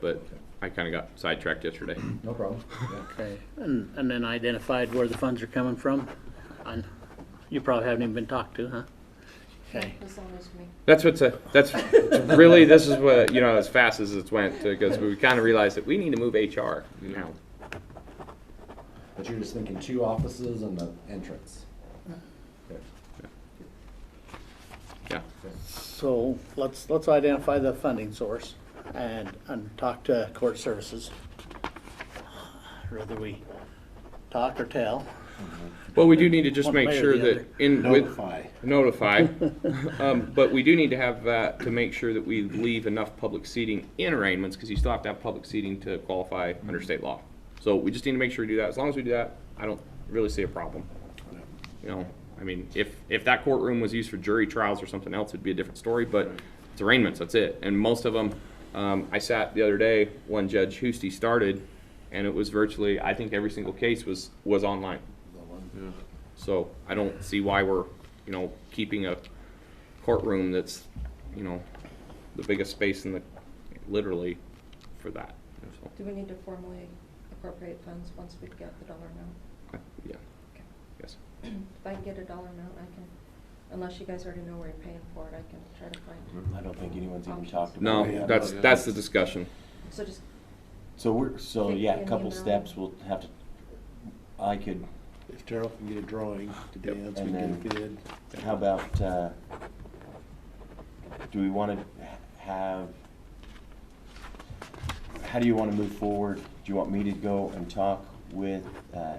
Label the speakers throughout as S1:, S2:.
S1: but I kinda got sidetracked yesterday.
S2: No problem. Yeah.
S3: Okay, and, and then identified where the funds are coming from? And you probably haven't even been talked to, huh? Okay,
S4: As long as we,
S1: That's what's a, that's really, this is what, you know, as fast as it's went, because we kinda realized that we need to move HR now.
S2: But you're just thinking two offices and the entrance. Okay.
S1: Yeah,
S3: so let's, let's identify the funding source and, and talk to court services. Whether we talk or tell.
S1: well, we do need to just
S3: One
S1: make
S3: way or
S1: sure
S3: the
S1: that
S3: other.
S1: in with. Notify. Um, but we do need to have that to make sure that we leave enough public seating in arraignments, because you still have to have public seating to qualify under state law. So we just need to make sure we do that. As long as we do that, I don't really see a problem. You know, I mean, if, if that courtroom was used for jury trials or something else, it'd be a different story, but it's arraignments, that's it. And most of them, um, I sat the other day when Judge Husty started, and it was virtually, I think every single case was, was online. So I don't see why we're, you know, keeping a courtroom that's, you know, the biggest space in the, literally, for that. So,
S4: do we need to formally appropriate funds once we get the dollar amount?
S1: I- Yeah,
S4: Okay.
S1: yes.
S4: If I can get a dollar amount, I can, unless you guys already know where you're paying for it, I can try to find.
S5: I don't think anyone's even talked
S1: No,
S5: about it. yet.
S1: that's, that's the discussion.
S4: So just,
S5: So we're, so
S4: Think
S5: yeah,
S4: in
S5: a
S4: the
S5: couple
S4: amount.
S5: steps, we'll have to, I could,
S6: If Terrell can get a drawing to
S1: Yep.
S6: dance, we
S5: And
S6: can get a
S5: then-
S6: bid.
S5: how about, uh, do we wanna have, how do you wanna move forward? Do you want me to go and talk with, uh,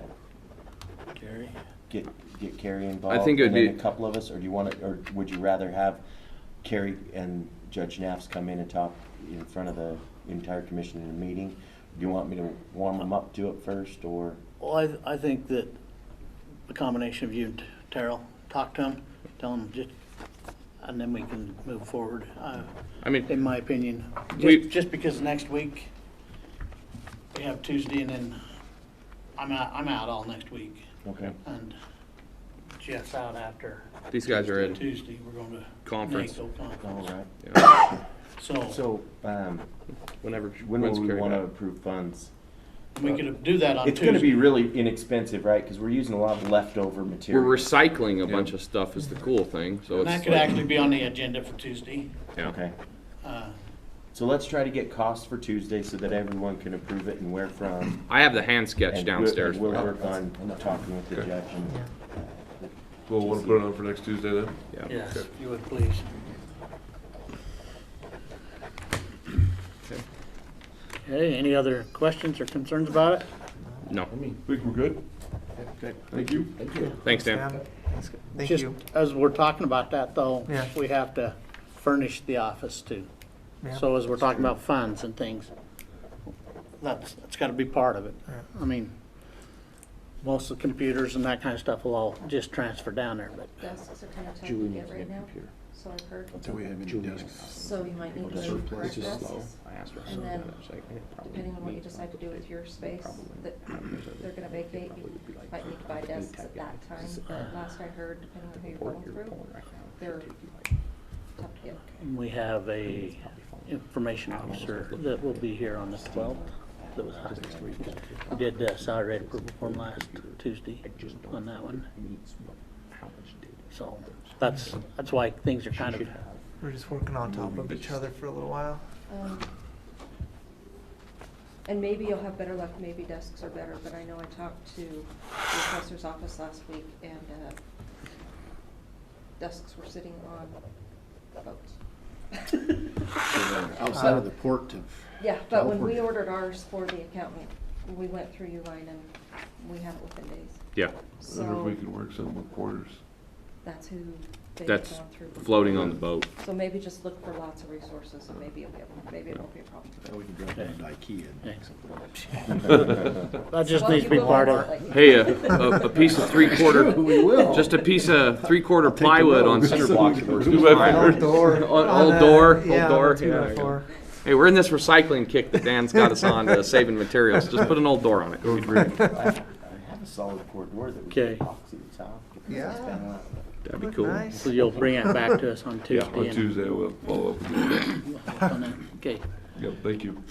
S3: Gary?
S5: get, get Carrie involved?
S1: think it would
S5: and then
S1: be-
S5: A couple of us, or do you wanna, or would you rather have Carrie and Judge Knapps come in and talk in front of the entire commission in a meeting? Do you want me to warm them up to it first, or?
S3: Well, I, I think that the combination of you and Terrell, talk to them, tell them just, and then we can move forward. Uh,
S1: I mean,
S3: in my opinion.
S1: We-
S3: Just, just because next week, we have Tuesday and then I'm out, I'm out all next week.
S5: Okay.
S3: And Jeff's out after
S1: these guys are in,
S3: Tuesday, we're going to.
S1: Conference.
S3: NACO
S5: All
S3: conference.
S5: right.
S3: So
S5: So, um,
S1: whenever.
S5: when
S1: when's
S5: will we
S1: Carrie
S5: wanna
S1: back?
S5: approve funds?
S3: we could do that on
S5: It's
S3: Tuesday.
S5: gonna be really inexpensive, right, cause we're using a lot of leftover
S1: We're
S5: material.
S1: recycling a bunch of stuff is the cool thing, so
S3: And that
S1: it's
S3: could
S1: like,
S3: actually be on the agenda for Tuesday.
S1: yeah.
S5: Okay,
S3: Uh,
S5: so let's try to get costs for Tuesday so that everyone can approve it and where from.
S1: I have the hand
S5: and
S1: sketch
S5: we'll-
S1: downstairs.
S5: We'll
S1: for
S5: work on talking with the
S7: Okay.
S5: judge and.
S7: Well, we'll put it on for next Tuesday then?
S1: that. Yeah.
S3: yes, if you would please. Okay, any other questions or concerns about it?
S1: No,
S7: Think we're good?
S6: Good.
S7: Thank you.
S2: Thank you.
S1: thanks, Dan.
S7: Thanks.
S8: Thank
S3: Just
S8: you.
S3: As we're talking about that though,
S8: Yeah.
S3: we have to furnish the office too.
S8: Yeah.
S3: So as we're talking about funds and things, that's, that's gotta be part of it.
S8: Yeah.
S3: I mean, most of the computers and that kind of stuff will all just transfer down there, but
S4: desks are kind of tough to get right now, so I've heard.
S6: Until we have any desks.
S4: So you might need to
S6: Just
S4: move
S6: replace
S4: current
S6: it slow.
S4: desks,
S1: I asked her.
S4: And then,
S1: She's like, "Eh, probably
S4: depending on what
S1: me."
S4: you decide to do with your space,
S1: Probably.
S4: that they're gonna vacate, you might need to buy desks at that time, but last I heard, depending on who you're going through, they're tough to get.
S3: we have a information officer that will be here on the twelfth. That was, we did uh, salary rate approval form last Tuesday on that one, so that's, that's why things are kind of
S8: We're just working on top of each other for a little while.
S4: Um, And maybe you'll have better luck, maybe desks are better, but I know I talked to the assessor's office last week and, uh, desks were sitting on boats.
S6: Outside of the port of.
S4: Yeah, but when we
S6: California.
S4: ordered ours for the accountant, we went through Uline and we had it within days.
S1: Yeah,
S7: Wonder if we
S4: So
S7: can work something with quarters.
S4: that's who they've gone
S1: that's
S4: through.
S1: floating on the boat.
S4: So maybe just look for lots of resources and maybe you'll get one, maybe it won't be a problem.
S6: Now we can drive down to IKEA and pick something up.
S3: That just
S4: Well,
S3: needs to be
S4: you will
S3: part of it.
S4: definitely.
S1: Hey, a, a, a piece of three quarter,
S6: We will.
S1: just a piece of three quarter plywood on cinder blocks. would work just
S7: Two by
S1: fine.
S7: fours.
S1: Old
S8: On
S1: old
S8: a-
S1: door, old
S8: yeah,
S1: door.
S8: on a two by
S1: yeah.
S8: four.
S1: Hey, we're in this recycling kick that Dan's got us on to saving materials. Just put an old door on it.
S7: Go green.
S5: I have a solid core door that we
S3: Okay.
S5: can epoxy the top.
S8: Yeah.
S1: That'd be cool.
S3: So you'll bring it back to us on Tuesday.
S7: On
S3: and-
S7: Tuesday, we'll follow up. with you.
S3: on that. Okay,
S7: Yep, thank you.